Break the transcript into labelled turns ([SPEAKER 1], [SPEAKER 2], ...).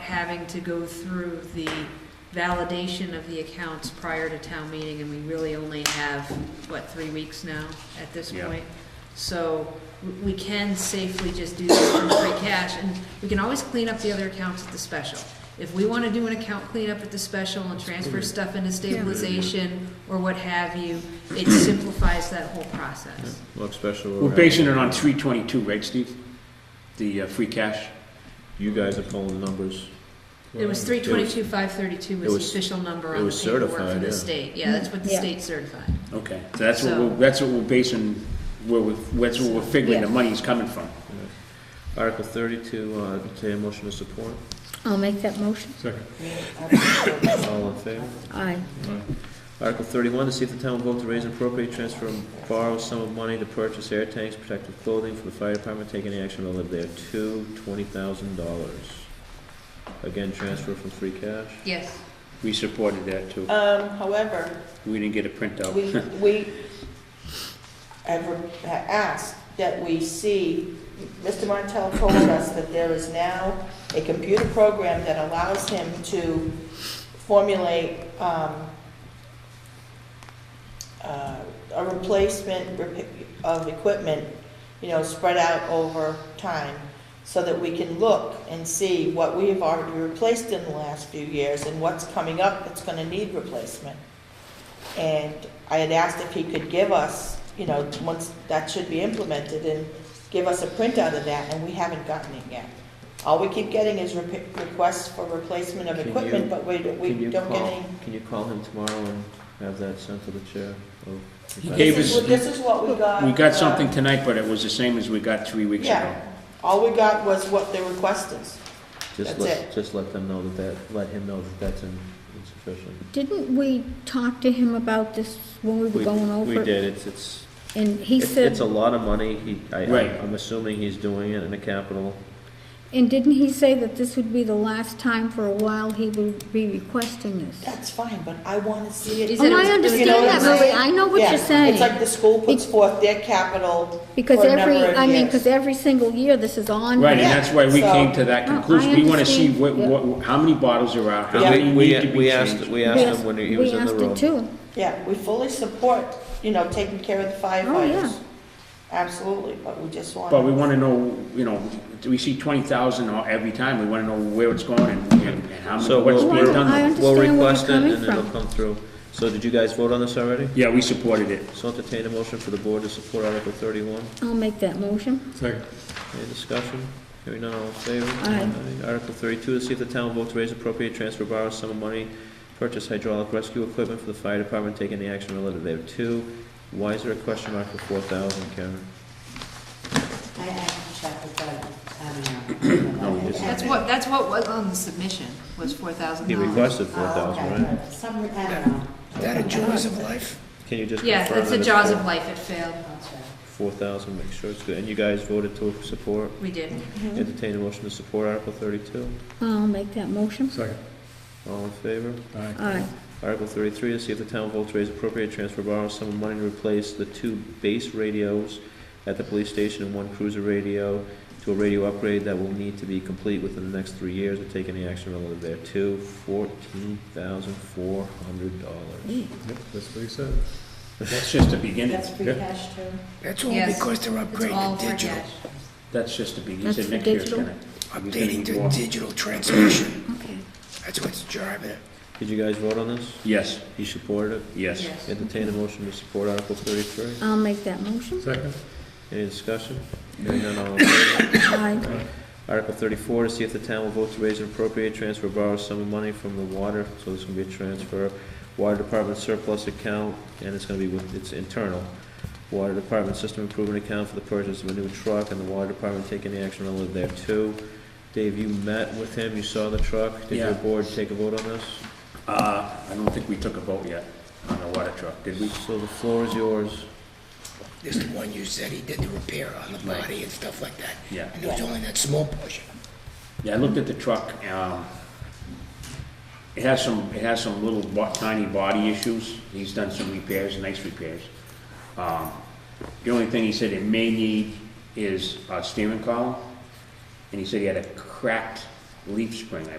[SPEAKER 1] having to go through the validation of the accounts prior to town meeting, and we really only have, what, three weeks now at this
[SPEAKER 2] Yeah.
[SPEAKER 1] point? So w- we can safely just do this from free cash, and we can always clean up the other accounts at the special. If we want to do an account cleanup at the special and transfer stuff into stabilization or what have you, it simplifies that whole process.
[SPEAKER 3] Look special.
[SPEAKER 2] We're basing it on three twenty-two, right, Steve? The uh, free cash?
[SPEAKER 3] You guys are pulling the numbers.
[SPEAKER 1] It was three twenty-two, five thirty-two
[SPEAKER 3] it
[SPEAKER 1] was the
[SPEAKER 3] was-
[SPEAKER 1] official number
[SPEAKER 3] it
[SPEAKER 1] on the
[SPEAKER 3] was
[SPEAKER 1] paperwork
[SPEAKER 3] certified,
[SPEAKER 1] from the
[SPEAKER 3] yeah.
[SPEAKER 1] state. Yeah, that's what the
[SPEAKER 4] Yeah.
[SPEAKER 1] state certified.
[SPEAKER 2] Okay, so that's what
[SPEAKER 1] So-
[SPEAKER 2] we're, that's what we're basing, where we're, that's what we're figuring the
[SPEAKER 4] Yeah.
[SPEAKER 2] money's coming from.
[SPEAKER 3] Article thirty-two, uh, entertain a motion to support.
[SPEAKER 4] I'll make that motion.
[SPEAKER 3] All in favor?
[SPEAKER 4] Aye.
[SPEAKER 3] Article thirty-one, to see if the town will vote to raise and appropriate, transfer, and borrow some of money to purchase air tanks, protective clothing for the fire department, take any action relative thereto, twenty thousand dollars. Again, transfer from free cash.
[SPEAKER 1] Yes.
[SPEAKER 2] We supported that too.
[SPEAKER 5] Um, however,
[SPEAKER 2] We didn't get a printout.
[SPEAKER 5] we, we have re- ha- asked that we see, Mr. Martell told us that there is now a computer program that allows him to formulate, um, uh, a replacement repa- of equipment, you know, spread out over time, so that we can look and see what we have already replaced in the last few years and what's coming up that's gonna need replacement. And I had asked if he could give us, you know, once that should be implemented, and give us a printout of that, and we haven't gotten it yet. All we keep getting is repe- requests for replacement of
[SPEAKER 3] Can you-
[SPEAKER 5] equipment, but we,
[SPEAKER 3] Can
[SPEAKER 5] we
[SPEAKER 3] you
[SPEAKER 5] don't get
[SPEAKER 3] call-
[SPEAKER 5] any.
[SPEAKER 3] Can you call him tomorrow and have that sent to the chair? Oh, of-
[SPEAKER 2] He gave
[SPEAKER 5] This is,
[SPEAKER 2] us-
[SPEAKER 5] what- this is what we got.
[SPEAKER 2] We got
[SPEAKER 5] uh,
[SPEAKER 2] something tonight, but it was the same as we got three weeks ago.
[SPEAKER 5] Yeah, all we got was what the request is.
[SPEAKER 3] Just
[SPEAKER 5] That's
[SPEAKER 3] let,
[SPEAKER 5] it.
[SPEAKER 3] just let them know that that, let him know that that's in- insufficient.
[SPEAKER 4] Didn't we talk to him about this when we were
[SPEAKER 3] We-
[SPEAKER 4] going over?
[SPEAKER 3] We did, it's, it's,
[SPEAKER 4] And he
[SPEAKER 3] it's it's a
[SPEAKER 4] said,
[SPEAKER 3] lot of money, he, I,
[SPEAKER 2] Right.
[SPEAKER 3] I'm assuming he's doing it in a capital.
[SPEAKER 4] and didn't he say that this would be the last time for a while he would be requesting this?
[SPEAKER 5] That's fine, but I want to see it.
[SPEAKER 1] Is it-
[SPEAKER 4] Oh, I
[SPEAKER 5] You know
[SPEAKER 4] understand
[SPEAKER 5] what I'm
[SPEAKER 4] that, Lily,
[SPEAKER 5] saying?
[SPEAKER 4] I know what
[SPEAKER 5] Yeah,
[SPEAKER 4] you're
[SPEAKER 5] It's like
[SPEAKER 4] saying.
[SPEAKER 5] the school puts forth their capital
[SPEAKER 4] Because
[SPEAKER 5] for a
[SPEAKER 4] every,
[SPEAKER 5] number of
[SPEAKER 4] I mean,
[SPEAKER 5] years.
[SPEAKER 4] because every single year this is on.
[SPEAKER 2] Right, and
[SPEAKER 5] Yeah,
[SPEAKER 2] that's why we
[SPEAKER 5] so-
[SPEAKER 2] came to that
[SPEAKER 4] No, I
[SPEAKER 2] conclusion. We wanna see
[SPEAKER 4] understand,
[SPEAKER 2] what,
[SPEAKER 4] yeah.
[SPEAKER 2] what, how many bottles are out, how
[SPEAKER 5] Yeah.
[SPEAKER 2] many
[SPEAKER 3] We,
[SPEAKER 2] need to be
[SPEAKER 3] we asked,
[SPEAKER 2] changed.
[SPEAKER 3] we
[SPEAKER 4] We
[SPEAKER 3] asked
[SPEAKER 4] asked-
[SPEAKER 3] him when he was in the
[SPEAKER 4] We
[SPEAKER 3] room.
[SPEAKER 4] asked him too.
[SPEAKER 5] Yeah, we fully support, you know, taking care of the
[SPEAKER 4] Oh, yeah.
[SPEAKER 5] firefighters. Absolutely, but we just want.
[SPEAKER 2] But we wanna know, you know, we see twenty thousand every time. We wanna know where it's going and, and and how
[SPEAKER 3] So
[SPEAKER 2] many, what's
[SPEAKER 4] Well,
[SPEAKER 3] we'll,
[SPEAKER 4] I
[SPEAKER 2] being
[SPEAKER 4] don't- I
[SPEAKER 2] done.
[SPEAKER 4] understand
[SPEAKER 3] we'll
[SPEAKER 4] where you're
[SPEAKER 3] request it
[SPEAKER 4] coming
[SPEAKER 3] and it'll
[SPEAKER 4] from.
[SPEAKER 3] come through. So did you guys vote on this already?
[SPEAKER 2] Yeah, we supported it.
[SPEAKER 3] So entertain a motion for the board to support Article thirty-one.
[SPEAKER 4] I'll make that motion.
[SPEAKER 3] Any discussion? Hearing none, all in favor?
[SPEAKER 4] Aye.
[SPEAKER 3] Aye. Article thirty-two, to see if the town votes to raise appropriate transfer borrow sum of money, purchase hydraulic rescue equipment for the fire department, take any action relative thereto. Why is there a question mark for four thousand, Karen?
[SPEAKER 6] I, I can check with the, I don't know.
[SPEAKER 3] No, it's-
[SPEAKER 1] That's what, that's what was on the submission, was four thousand
[SPEAKER 3] He
[SPEAKER 1] dollars.
[SPEAKER 3] requested four
[SPEAKER 6] Oh,
[SPEAKER 3] thousand,
[SPEAKER 6] okay.
[SPEAKER 3] right?
[SPEAKER 6] Some, I don't know.
[SPEAKER 7] That a jaws of life?
[SPEAKER 3] Can you just confirm?
[SPEAKER 1] Yeah, it's a jaws of life, it failed.
[SPEAKER 6] That's right.
[SPEAKER 3] Four thousand, make sure it's good. And you guys voted to support,
[SPEAKER 1] We did.
[SPEAKER 3] entertain a motion to support Article thirty-two.
[SPEAKER 4] I'll make that motion.
[SPEAKER 7] Second.
[SPEAKER 3] All in favor?
[SPEAKER 4] Aye.
[SPEAKER 3] Article thirty-three, to see if the town votes to raise appropriate transfer borrow some of money to replace the two base radios at the police station and one cruiser radio to a radio upgrade that will need to be complete within the next three years or take any action relative thereto, fourteen thousand four hundred dollars.
[SPEAKER 7] Yep, that's what he said.
[SPEAKER 2] That's just the beginning.
[SPEAKER 6] That's free
[SPEAKER 7] Yeah.
[SPEAKER 6] cash too?
[SPEAKER 7] That's all
[SPEAKER 1] Yes.
[SPEAKER 7] because they're
[SPEAKER 1] It's all
[SPEAKER 7] upgrading
[SPEAKER 1] for
[SPEAKER 7] digital,
[SPEAKER 1] cash.
[SPEAKER 2] That's just the beginning. He
[SPEAKER 4] That's
[SPEAKER 2] said
[SPEAKER 4] for
[SPEAKER 2] next year's
[SPEAKER 4] digital?
[SPEAKER 2] gonna- he's gonna
[SPEAKER 7] updating
[SPEAKER 2] be
[SPEAKER 7] to
[SPEAKER 2] more.
[SPEAKER 7] digital transmission.
[SPEAKER 4] Okay.
[SPEAKER 7] That's what's driving it.
[SPEAKER 3] Did you guys vote on this?
[SPEAKER 2] Yes,
[SPEAKER 3] You supported it?
[SPEAKER 2] yes.
[SPEAKER 1] Yes.
[SPEAKER 3] Entertain a motion to support Article thirty-three.
[SPEAKER 4] I'll make that motion.
[SPEAKER 7] Second.
[SPEAKER 3] Any discussion? Hearing none, all in favor?
[SPEAKER 4] Aye.
[SPEAKER 3] Article thirty-four, to see if the town will vote to raise and appropriate transfer borrow some of money from the water, so this can be a transfer, water department surplus account, and it's gonna be with, it's internal. Water department system improvement account for the purchase of a new truck, and the water department take any action relative thereto. Dave, you met with him, you saw the truck, did
[SPEAKER 2] Yeah.
[SPEAKER 3] your board take a vote on this?
[SPEAKER 2] Uh, I don't think we took a vote yet on the water truck, did we?
[SPEAKER 3] So the floor is yours.
[SPEAKER 7] This is the one you said he did the repair on the body and stuff like that.
[SPEAKER 2] Yeah.
[SPEAKER 7] And it was only that small portion.
[SPEAKER 2] Yeah, I looked at the truck, um, it has some, it has some little bo- tiny body issues. He's done some repairs, nice repairs. Um, the only thing he said it may need is a steering column, and he said he had a cracked leaf spring, I